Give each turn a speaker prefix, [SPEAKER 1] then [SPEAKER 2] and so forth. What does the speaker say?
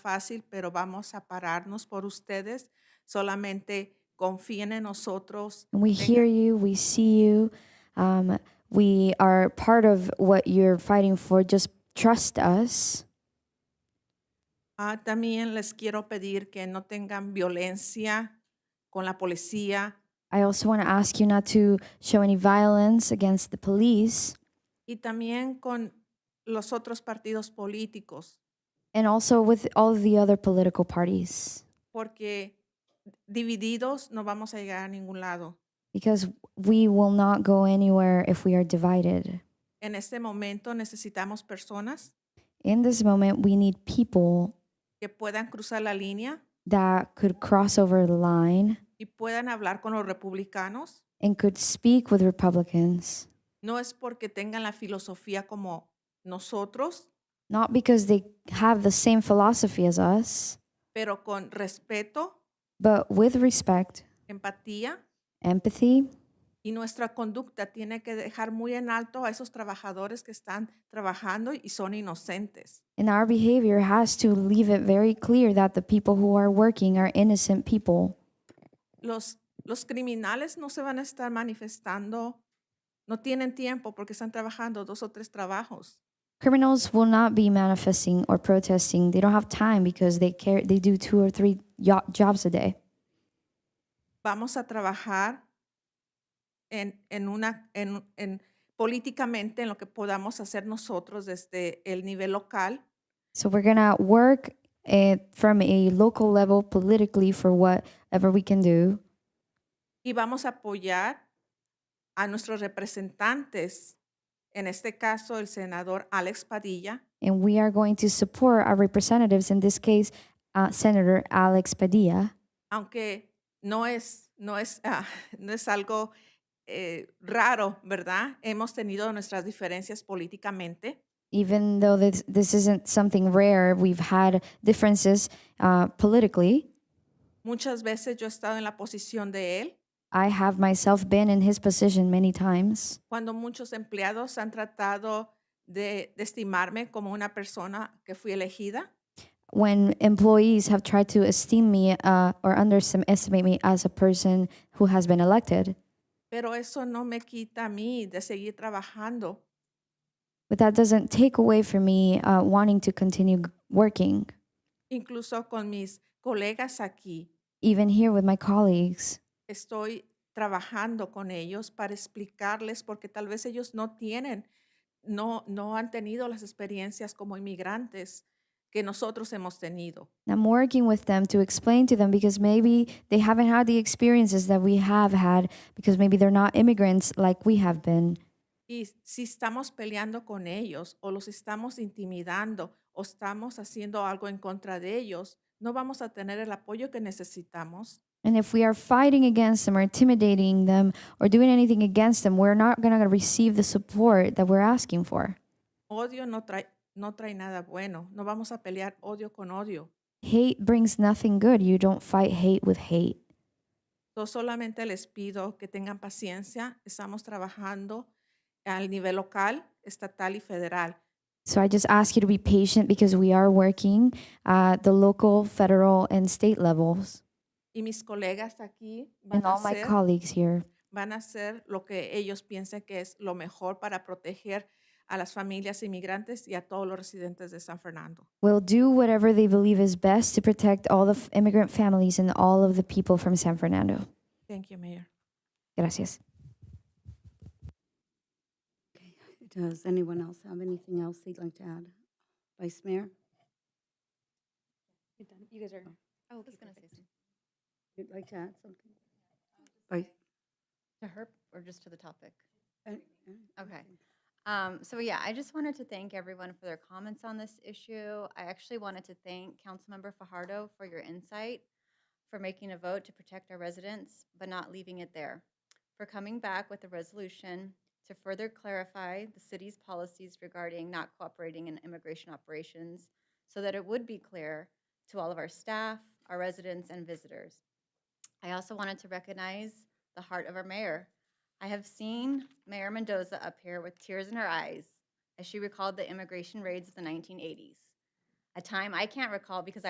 [SPEAKER 1] fácil, pero vamos a pararnos por ustedes. Solamente confíen en nosotros.
[SPEAKER 2] We
[SPEAKER 1] Tengan-
[SPEAKER 2] hear you, we see you, um, we are part of what you're fighting for. Just trust us.
[SPEAKER 1] Ah, también les quiero pedir que no tengan violencia con la policía
[SPEAKER 2] I also want to ask you not to show any violence against the police
[SPEAKER 1] y también con los otros partidos políticos,
[SPEAKER 2] and also with all the other political parties
[SPEAKER 1] porque divididos no vamos a llegar a ningún lado.
[SPEAKER 2] because we will not go anywhere if we are divided.
[SPEAKER 1] En este momento necesitamos personas
[SPEAKER 2] In this moment, we need people
[SPEAKER 1] que puedan cruzar la línea
[SPEAKER 2] that could cross over the line
[SPEAKER 1] y puedan hablar con los republicanos.
[SPEAKER 2] and could speak with Republicans,
[SPEAKER 1] No es porque tengan la filosofía como nosotros,
[SPEAKER 2] not because they have the same philosophy as us,
[SPEAKER 1] pero con respeto,
[SPEAKER 2] but with respect,
[SPEAKER 1] empatía
[SPEAKER 2] empathy,
[SPEAKER 1] y nuestra conducta tiene que dejar muy en alto a esos trabajadores que están trabajando y son inocentes.
[SPEAKER 2] and our behavior has to leave it very clear that the people who are working are innocent people.
[SPEAKER 1] Los, los criminales no se van a estar manifestando, no tienen tiempo porque están trabajando dos o tres trabajos.
[SPEAKER 2] Criminals will not be manifesting or protesting. They don't have time because they care. They do two or three yo- jobs a day.
[SPEAKER 1] Vamos a trabajar en, en una, en, en- políticamente en lo que podamos hacer nosotros desde el nivel local
[SPEAKER 2] So we're gonna work eh, from a local level politically for whatever we can do,
[SPEAKER 1] y vamos a apoyar a nuestros representantes, en este caso el senador Alex Padilla,
[SPEAKER 2] and we are going to support our representatives. In this case, uh, Senator Alex Padilla.
[SPEAKER 1] aunque no es, no es, ah, no es algo eh, raro, ¿verdad? Hemos tenido nuestras diferencias políticamente,
[SPEAKER 2] Even though this this isn't something rare, we've had differences uh, politically.
[SPEAKER 1] muchas veces yo he estado en la posición de él,
[SPEAKER 2] I have myself been in his position many times.
[SPEAKER 1] cuando muchos empleados han tratado de, de estimarme como una persona que fui elegida,
[SPEAKER 2] when employees have tried to esteem me uh, or underestimate me as a person who has been elected.
[SPEAKER 1] pero eso no me quita a mí de seguir trabajando
[SPEAKER 2] But that doesn't take away from me uh, wanting to continue g- working,
[SPEAKER 1] incluso con mis colegas aquí.
[SPEAKER 2] even here with my colleagues.
[SPEAKER 1] Estoy trabajando con ellos para explicarles porque tal vez ellos no tienen, no, no han tenido las experiencias como inmigrantes que nosotros hemos tenido.
[SPEAKER 2] I'm working with them to explain to them because maybe they haven't had the experiences that we have had because maybe they're not immigrants like we have been.
[SPEAKER 1] Y si estamos peleando con ellos o los estamos intimidando o estamos haciendo algo en contra de ellos, no vamos a tener el apoyo que necesitamos.
[SPEAKER 2] And if we are fighting against them or intimidating them or doing anything against them, we're not going to receive the support that we're asking for.
[SPEAKER 1] Odio no trae, no trae nada bueno. No vamos a pelear odio con odio.
[SPEAKER 2] Hate brings nothing good. You don't fight hate with hate.
[SPEAKER 1] Yo solamente les pido que tengan paciencia. Estamos trabajando al nivel local, estatal y federal.
[SPEAKER 2] So I just ask you to be patient because we are working at the local, federal, and state levels.
[SPEAKER 1] Y mis colegas aquí van
[SPEAKER 2] And
[SPEAKER 1] a,
[SPEAKER 2] all my
[SPEAKER 1] hacer,
[SPEAKER 2] colleagues here,
[SPEAKER 1] van a hacer lo que ellos piensen que es lo mejor para proteger a las familias inmigrantes y a todos los residentes de San Fernando.
[SPEAKER 2] will do whatever they believe is best to protect all the f- immigrant families and all of the people from San Fernando.
[SPEAKER 1] Thank you, Mayor.
[SPEAKER 2] Gracias.
[SPEAKER 3] Does anyone else have anything else they'd like to add? Vice Mayor? Oh.
[SPEAKER 4] You guys are. Oh, I was gonna say something.
[SPEAKER 3] You'd like to add something? Vice?
[SPEAKER 4] To her or just to the topic?
[SPEAKER 3] uh, uh,
[SPEAKER 4] Okay. Um, so yeah, I just wanted to thank everyone for their comments on this issue. I actually wanted to thank Councilmember Fajardo for your insight, for making a vote to protect our residents, but not leaving it there, for coming back with a resolution to further clarify the city's policies regarding not cooperating in immigration operations so that it would be clear to all of our staff, our residents, and visitors. I also wanted to recognize the heart of our mayor, I have seen Mayor Mendoza up here with tears in her eyes as she recalled the immigration raids of the 1980s. a time I can't recall because I